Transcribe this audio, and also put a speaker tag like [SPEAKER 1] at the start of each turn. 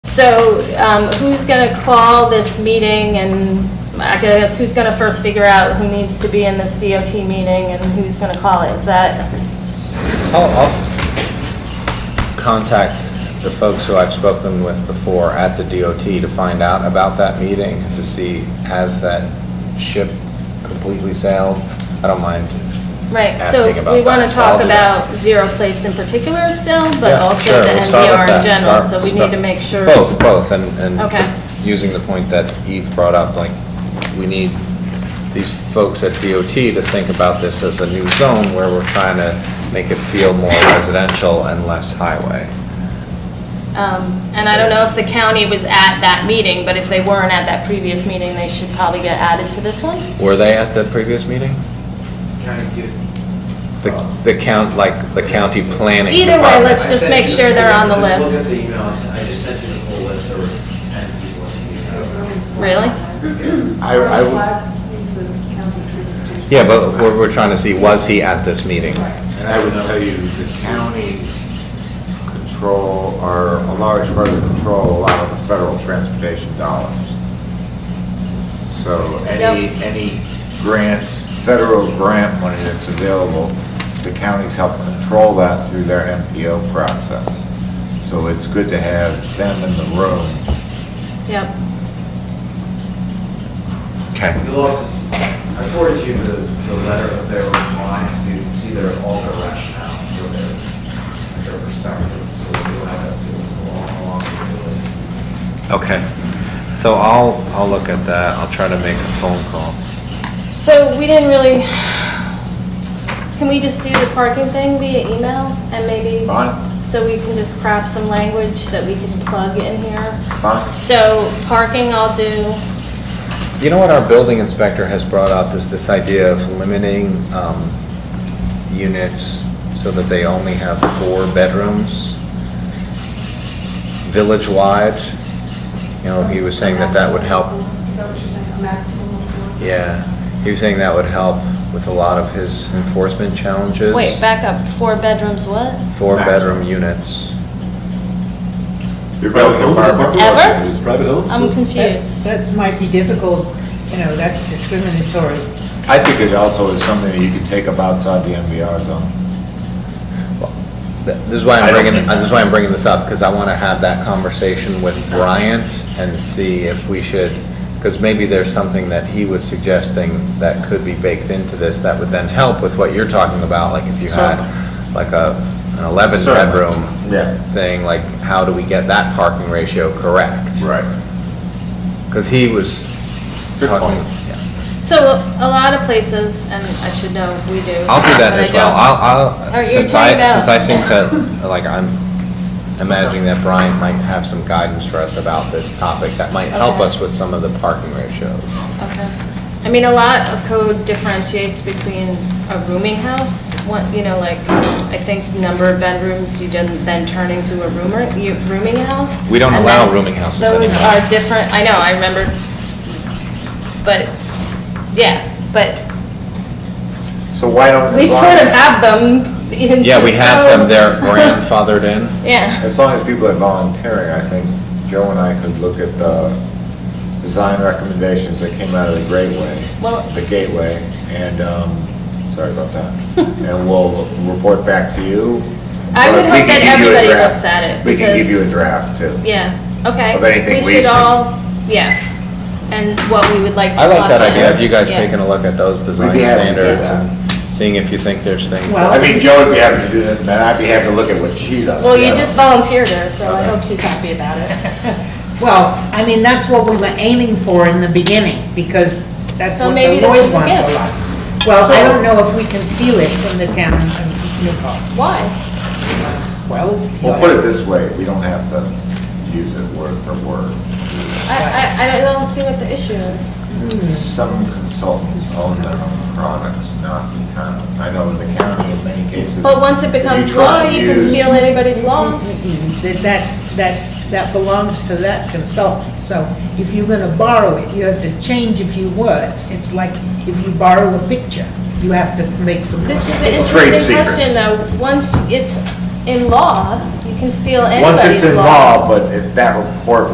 [SPEAKER 1] So um, who's going to call this meeting and I guess who's going to first figure out who needs to be in this DOT meeting and who's going to call it? Is that,
[SPEAKER 2] I'll, I'll contact the folks who I've spoken with before at the DOT to find out about that meeting, to see has that ship completely sailed? I don't mind.
[SPEAKER 1] right? So
[SPEAKER 2] Asking about
[SPEAKER 1] we want
[SPEAKER 2] that,
[SPEAKER 1] to
[SPEAKER 2] so I'll
[SPEAKER 1] talk
[SPEAKER 2] do that.
[SPEAKER 1] about Zero Place in particular still, but
[SPEAKER 2] Yeah,
[SPEAKER 1] also
[SPEAKER 2] sure,
[SPEAKER 1] the
[SPEAKER 2] we'll start with
[SPEAKER 1] NBR in
[SPEAKER 2] that.
[SPEAKER 1] general. So
[SPEAKER 2] Start-
[SPEAKER 1] we need to
[SPEAKER 2] start-
[SPEAKER 1] make sure.
[SPEAKER 2] Both, both, and,
[SPEAKER 1] Okay.
[SPEAKER 2] and using the point that Eve brought up, like, we need these folks at DOT to think about this as a new zone where we're trying to make it feel more residential and less highway.
[SPEAKER 1] Um, And I don't know if the county was at that meeting, but if they weren't at that previous meeting, they should probably get added to this one.
[SPEAKER 2] Were they at the previous meeting?
[SPEAKER 3] kind of get.
[SPEAKER 2] The, the count, like, the county planning
[SPEAKER 1] Either way,
[SPEAKER 2] department.
[SPEAKER 1] let's just
[SPEAKER 3] I sent
[SPEAKER 1] make
[SPEAKER 3] you-
[SPEAKER 1] sure they're on the list.
[SPEAKER 3] Just look at the emails, I just sent you the whole list, there were ten people.
[SPEAKER 1] Really?
[SPEAKER 4] I, I would. He's the county transportation.
[SPEAKER 2] Yeah, but we're, we're trying to see, was he at this meeting?
[SPEAKER 5] And I would tell you, the county control, or a large part of control, a lot of the federal transportation dollars. So any,
[SPEAKER 1] Yep.
[SPEAKER 5] any grant, federal grant money that's available, the counties help control that through their MPO process. So it's good to have them in the room.
[SPEAKER 1] Yep.
[SPEAKER 2] Okay.
[SPEAKER 3] The losses, I forwarded you the, the letter of their reply, so you can see their, all their rationale for their, their perspective, so that you'll have that too, along, along with the list.
[SPEAKER 2] Okay. So I'll, I'll look at that, I'll try to make a phone call.
[SPEAKER 1] So we didn't really, can we just do the parking thing via email and maybe?
[SPEAKER 5] Fine.
[SPEAKER 1] So we can just craft some language that we can plug in here.
[SPEAKER 5] Fine.
[SPEAKER 1] So parking I'll do,
[SPEAKER 2] You know what our building inspector has brought up is this idea of limiting um, units so that they only have four bedrooms village-wide. You know, he was saying that that would help.
[SPEAKER 4] Is that what you're saying, a maximum of four?
[SPEAKER 2] Yeah, he was saying that would help with a lot of his enforcement challenges.
[SPEAKER 1] wait, back up, four bedrooms what?
[SPEAKER 2] Four-bedroom units.
[SPEAKER 5] Your building department-
[SPEAKER 1] Ever?
[SPEAKER 5] It's private owned.
[SPEAKER 1] I'm
[SPEAKER 6] That-
[SPEAKER 1] confused.
[SPEAKER 6] That might be difficult, you know, that's discriminatory.
[SPEAKER 5] I think it also is something that you could take up outside the MBR zone.
[SPEAKER 2] Th- This is why
[SPEAKER 5] I
[SPEAKER 2] I'm
[SPEAKER 5] don't
[SPEAKER 2] bringing,
[SPEAKER 5] think-
[SPEAKER 2] uh, this is why I'm bringing this up, because I want to have that conversation with Bryant and see if we should, because maybe there's something that he was suggesting that could be baked into this that would then help with what you're talking about, like if you had like a, an eleven
[SPEAKER 5] Certainly.
[SPEAKER 2] bedroom
[SPEAKER 5] Yeah.
[SPEAKER 2] thing, like how do we get that parking ratio correct?
[SPEAKER 5] Right.
[SPEAKER 2] Because he was
[SPEAKER 5] Good
[SPEAKER 2] talking.
[SPEAKER 5] point.
[SPEAKER 2] yeah.
[SPEAKER 1] So a lot of places, and I should know if we do.
[SPEAKER 2] I'll do that
[SPEAKER 1] but I
[SPEAKER 2] as well.
[SPEAKER 1] don't. Or
[SPEAKER 2] I'll, I'll,
[SPEAKER 1] you're
[SPEAKER 2] since I,
[SPEAKER 1] talking about-
[SPEAKER 2] since I seem to, like, I'm imagining that Brian might have some guidance for us about this topic that might help
[SPEAKER 1] Okay.
[SPEAKER 2] us with some of the parking ratios.
[SPEAKER 1] Okay. I mean, a lot of code differentiates between a rooming house, what, you know, like, I think number of bedrooms, you then then turn into a roomer, you, rooming house.
[SPEAKER 2] We don't
[SPEAKER 1] and
[SPEAKER 2] allow
[SPEAKER 1] then
[SPEAKER 2] rooming houses
[SPEAKER 1] Those
[SPEAKER 2] anymore.
[SPEAKER 1] are different, I know, I remember, but, yeah, but
[SPEAKER 5] So why don't?
[SPEAKER 1] we
[SPEAKER 5] as long
[SPEAKER 1] sort of
[SPEAKER 5] as-
[SPEAKER 1] have them. in
[SPEAKER 2] Yeah, we have them, they're
[SPEAKER 1] so-
[SPEAKER 2] grandfathered in.
[SPEAKER 1] Yeah.
[SPEAKER 5] As long as people are volunteering, I think Joe and I could look at the design recommendations that came out of the Great Way.
[SPEAKER 1] Well-
[SPEAKER 5] The Gateway, and, um, sorry about that. And we'll report back to you.
[SPEAKER 1] I would
[SPEAKER 5] But we
[SPEAKER 1] hope
[SPEAKER 5] can
[SPEAKER 1] that
[SPEAKER 5] give you a
[SPEAKER 1] everybody
[SPEAKER 5] draft.
[SPEAKER 1] looks at it,
[SPEAKER 5] We can give you a
[SPEAKER 1] because-
[SPEAKER 5] draft too.
[SPEAKER 1] Yeah, okay.
[SPEAKER 5] Of anything we
[SPEAKER 1] should
[SPEAKER 5] see.
[SPEAKER 1] all, yeah, and what we would like to.
[SPEAKER 2] I like that
[SPEAKER 1] modify.
[SPEAKER 2] idea. Have you guys
[SPEAKER 1] Yeah.
[SPEAKER 2] taken a look at those design
[SPEAKER 5] We'd be happy to do
[SPEAKER 2] standards
[SPEAKER 5] that.
[SPEAKER 2] and seeing if you think there's things?
[SPEAKER 6] Well-
[SPEAKER 5] I
[SPEAKER 2] that-
[SPEAKER 5] mean, Joe would be happy to do that, and I'd be happy to look at what she does.
[SPEAKER 1] Well, you just volunteered her, so I hope she's happy about it.
[SPEAKER 6] Well, I mean, that's what we were aiming for in the beginning, because that's
[SPEAKER 1] So
[SPEAKER 6] what
[SPEAKER 1] maybe
[SPEAKER 6] the
[SPEAKER 1] this
[SPEAKER 6] Lloyd
[SPEAKER 1] is a
[SPEAKER 6] wants a
[SPEAKER 1] gift.
[SPEAKER 6] lot. Well, I don't know if we can steal it from the town of Newport.
[SPEAKER 1] Why?
[SPEAKER 6] Well.
[SPEAKER 5] We'll put it this way, we don't have to use it word for word.
[SPEAKER 1] I, I, I don't see what the issue is.
[SPEAKER 5] Some consultants own their own products, not the county. I know in the county, in many cases.
[SPEAKER 1] But once it
[SPEAKER 5] if you
[SPEAKER 1] becomes
[SPEAKER 5] try
[SPEAKER 1] law,
[SPEAKER 5] and
[SPEAKER 1] you can
[SPEAKER 5] use-
[SPEAKER 1] steal anybody's law.
[SPEAKER 6] Mm-mm, That, that, that's- that belongs to that consultant, so if you're gonna borrow it, you have to change a few words. It's like if you borrow a picture, you have to make some.
[SPEAKER 1] This is an
[SPEAKER 5] Trade
[SPEAKER 1] interesting
[SPEAKER 5] secrets.
[SPEAKER 1] question, though. Once it's in law, you can steal anybody's law.
[SPEAKER 5] Once it's in law, but if that report